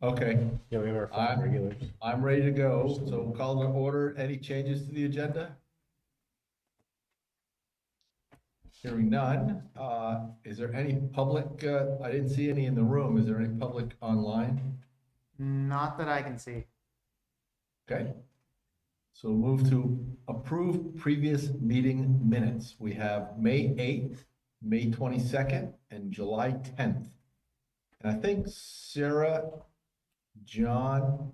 Okay, Yeah, we have our five five regulars. I'm ready to go, so we'll call to order. Any changes to the agenda? Hearing none. Uh, Is there any public, uh, I didn't see any in the room. Is there any public online? Not that I can see. Okay. So move to approve previous meeting minutes. We have May 8th, May 22nd, and July 10th. And I think Sarah, John,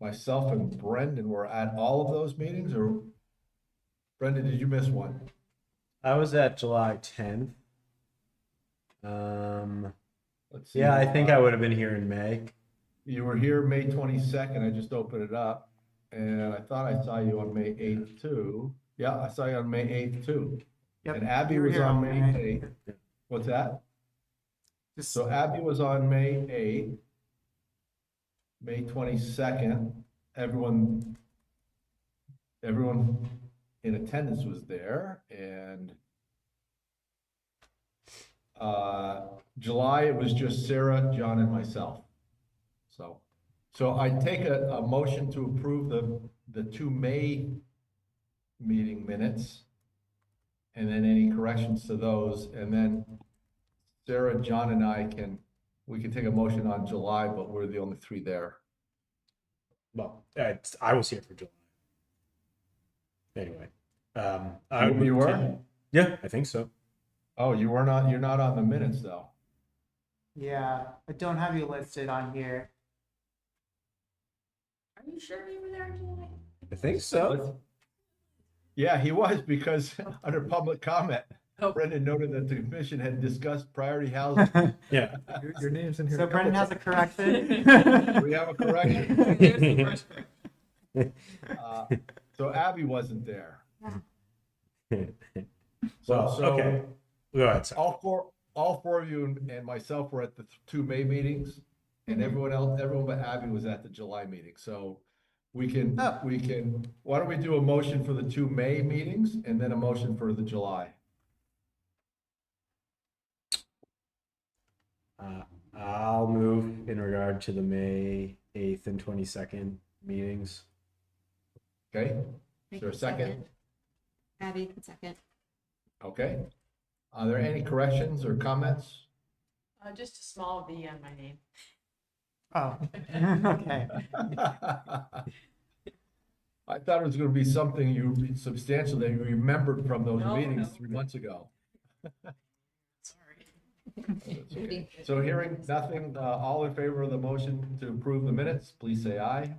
myself, and Brendan were at all of those meetings, or Brendan, did you miss one? I was at July tenth. Um, Let's see. yeah, I think I would have been here in May. You were here May 22nd. I just opened it up, and I thought I saw you on May 8th, too. Yeah, I saw you on May 8th, too. Yep, And Abby you were was here on May May 8th. eighth. What's that? Just, So Abby was on May eighth. May twenty-second, everyone, everyone in attendance was there and uh, July, it was just Sarah, John and myself. So, so I take a, a motion to approve the, the two May meeting minutes. And then any corrections to those, and then Sarah, John, and I can, we can take a motion on July, but we're the only three there. Well, uh, I was here for July. Anyway, um, I You- you were? Yeah, I think so. Oh, you were not, you're not on the minutes, though. yeah, I don't have you listed on here. Are you sure you were there tonight? I think so. Yeah, he was, because under public comment, Brendan noted that the commission had discussed priority housing. Yeah. Your, your name's in here. So a couple Brendan has a times. correction. We have a correction. There's the first one. Uh, So Abby wasn't there. So, Well, okay. so Go ahead. Sorry. all four, all four of you and- and myself were at the th- two May meetings, and everyone else, everyone but Abby was at the July meeting, so we can, Oh. we can, why don't we do a motion for the two May meetings and then a motion for the July? Uh, I'll move in regard to the May eighth and twenty second meetings. Okay, Make there a it second? Abby, can second. okay. Are there any corrections or comments? Uh, just a small V on my name. oh, okay. I thought it was gonna be something you substantial that you remembered from those No, meetings no. three months ago. Sorry. That's okay. So hearing nothing, uh, all in favor of the motion to approve the minutes, please say aye.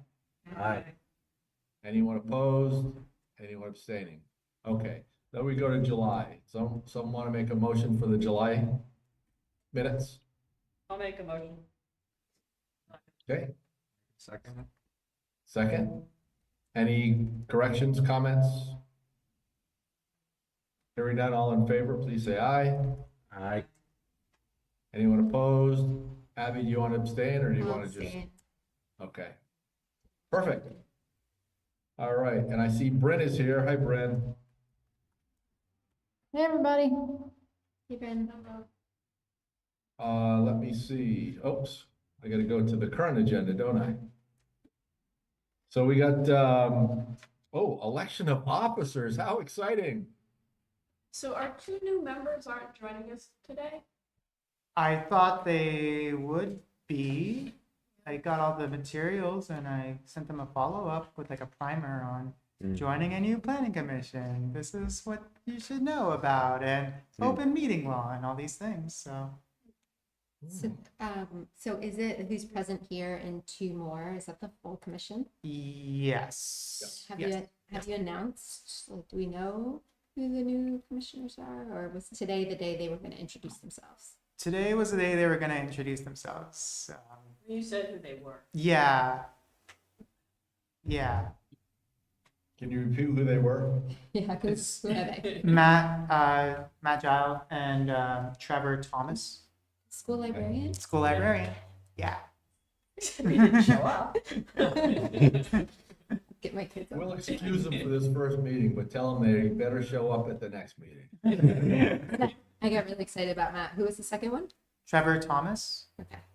Aye. Anyone opposed? Anyone abstaining? Okay, then we go to July. Some, some want to make a motion for the July minutes? I'll make a motion. Okay, Second. second. Any corrections, comments? Hearing none, all in favor, please say aye. I Anyone opposed? Abby, do you want to abstain or do you I'll want to just? abstain. Okay. Perfect. All right, and I see Brent is here. Hi, Brent. Hey, everybody. Hey, Bryn. Uh, let me see. Oops, I gotta go to the current agenda, don't I? So we got, um, oh, election of officers. How exciting. So our two new members aren't joining us today? I thought they would be. I got all the materials and I sent them a follow up with like a primer on Mm. joining a new planning commission. This is what you should know about and Mm. open meeting law and all these things. So Hmm. So, um, so is it who's present here and two more? Is that the full commission? yes, Have yes. you have you announced? Like, do we know who the new commissioners are, or was today the day they were going to introduce themselves? Today was the day they were going to introduce themselves. Um, You said who they were. yeah, yeah. Can you repeat who they were? Yeah, It's- because who are they? Matt, uh, Matt Gile and um, Trevor Thomas, School librarian. school librarian. Yeah. They didn't show up. Get my kids. We'll on. excuse them for this first meeting, but tell them they better show up at the next meeting. I got really excited about Matt. Who was the second one? Trevor Thomas. Okay.